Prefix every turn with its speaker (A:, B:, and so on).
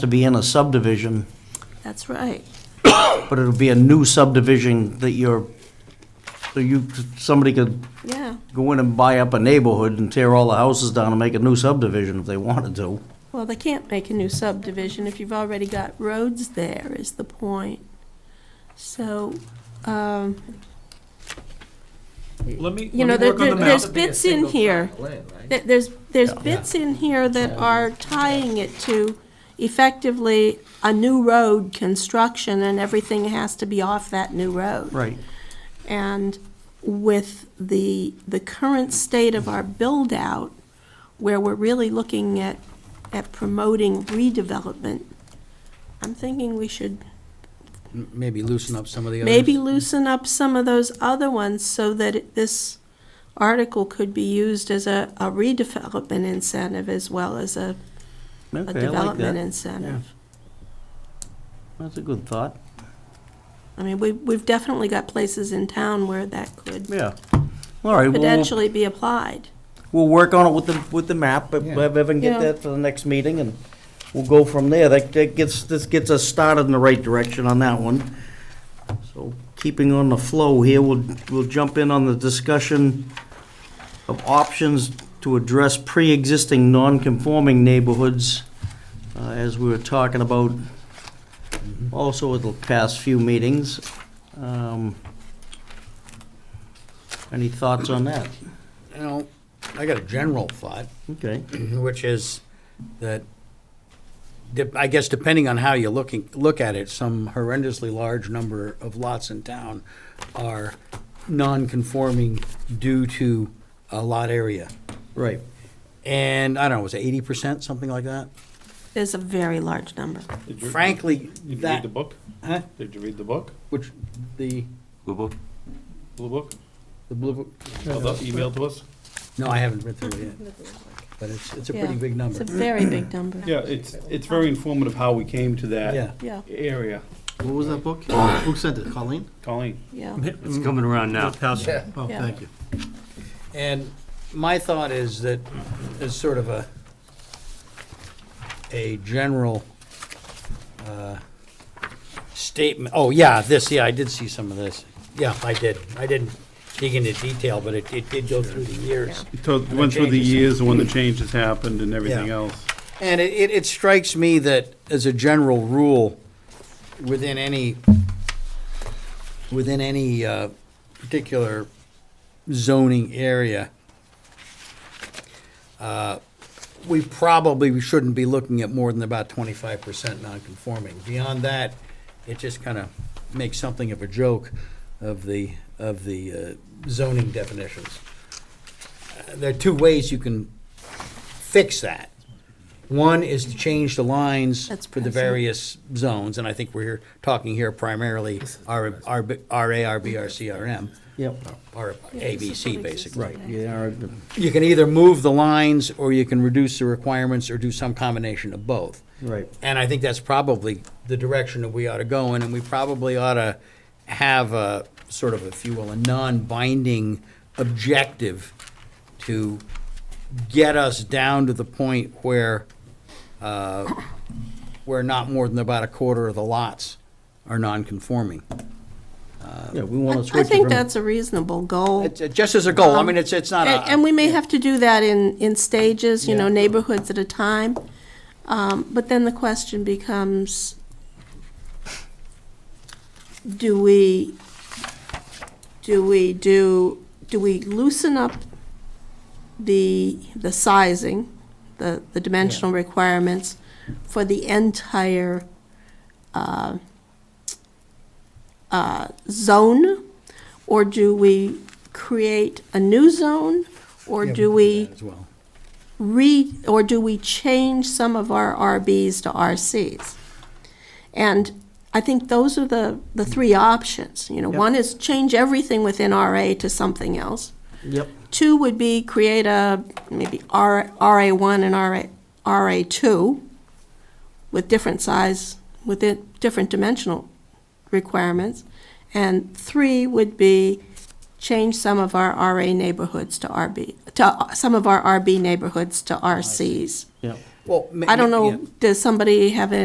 A: to be in a subdivision,
B: That's right.
A: but it'll be a new subdivision that you're, so you, somebody could
B: Yeah.
A: go in and buy up a neighborhood and tear all the houses down and make a new subdivision if they wanted to.
B: Well, they can't make a new subdivision if you've already got roads there, is the point. So, um,
C: Let me, let
B: You know,
C: me work
B: there-
C: on the
B: there-
C: map.
B: there's
D: That'd be a
B: bits in
D: single
B: here
D: tract of land, right?
B: th- there's, there's
A: Yeah.
B: bits in here that are tying it to effectively a new road construction and everything has to be off that new road.
A: Right.
B: And with the, the current state of our build-out, where we're really looking at, at promoting redevelopment, I'm thinking we should
E: M- Maybe loosen up some of the others.
B: maybe loosen up some of those other ones so that it- this article could be used as a a redevelopment incentive as well as a
A: Okay,
B: a
A: I like that.
B: development incentive.
A: That's a good thought.
B: I mean, we- we've definitely got places in town where that could
A: Yeah. All right, well, we'll,
B: potentially be applied.
A: we'll work on it with the, with the map, but
E: Yeah.
A: have Evan get
B: Yeah.
A: that for the next meeting and we'll go from there. That, that gets, this gets us started in the right direction on that one. So keeping on the flow here, we'll, we'll jump in on the discussion of options to address pre-existing non-conforming neighborhoods, uh, as we were talking about also at the past few meetings. Um, Any thoughts on that?
E: You know, I got a general thought,
A: Okay.
E: which is that, dep- I guess depending on how you looking, look at it, some horrendously large number of lots in town are non-conforming due to a lot area.
A: Right.
E: And, I don't know, was it eighty percent, something like that?
B: There's a very large number.
F: Did you-
E: Frankly,
F: Did you read
E: that,
F: the book?
E: huh,
F: Did you read the book?
E: which, the,
F: Blue book?
E: the blue, book-
F: Oh, the email to us?
E: no, I haven't read through it yet. But it's, it's a pretty
B: Yeah.
E: big
B: It's a
E: number,
B: very big number.
F: Yeah, it's, it's very informative how we came to
E: yeah.
F: that
B: Yeah,
F: area.
G: What was that book? Who sent it, Colleen?
F: Colleen?
B: yeah.
H: It's coming around now.
G: Pastor. Oh,
B: Yeah.
G: thank you.
E: And my thought is that, as sort of a, a general uh, statement, oh, yeah, this, yeah, I did see some of this. Yeah, I did. I didn't dig into detail, but it, it did go through the years.
F: Went through the
E: changes.
F: years and when the changes happened and everything
E: Yeah.
F: else.
E: And it, it, it strikes me that as a general rule, within any, within any, uh, particular zoning area, uh, we probably shouldn't be looking at more than about twenty-five percent non-conforming. Beyond that, it just kind of makes something of a joke of the, of the uh, zoning definitions. Uh, There are two ways you can fix that. One is to change the lines
B: That's
E: for the
B: present.
E: various zones, and I think we're here, talking here primarily R, R, RA, RB, RCRM,
A: Yep.
E: or ABC, basically.
A: Right, yeah,
E: You can either move the lines, or you can reduce the requirements, or do some combination of both.
A: right.
E: And I think that's probably the direction that we ought to go in, and we probably ought to have a, sort of, if you will, a non-binding objective to get us down to the point where, uh, where not more than about a quarter of the lots are non-conforming.
A: Yeah, we want to
B: I
A: switch it
B: think
A: from,
B: that's a reasonable goal.
E: It's- it's Just as a goal, I mean, it's, it's not a.
B: And, Um, and we may have to do that in, in stages, you know,
E: Yeah.
B: neighborhoods at a time. Um, but then the question becomes, do we, do we do, do we loosen up the, the sizing, the, the dimensional requirements for the entire, uh, uh, zone? Or do we create a new zone? Or
E: Yeah,
B: do
E: can
B: we
E: that As well.
B: re, or do we change some of our RBs to RCs? And I think those are the, the three options, you know,
A: Yep.
B: one is change everything within RA to something else.
A: yep,
B: Two would be create a, maybe R, RA1 and RA, RA2 with different size, with it, different dimensional requirements. And three would be change some of our RA neighborhoods to RB, to, uh, some of our RB neighborhoods to RCs.
A: yep.
E: Well, ma-
B: I don't
E: yeah.
B: know, does somebody have a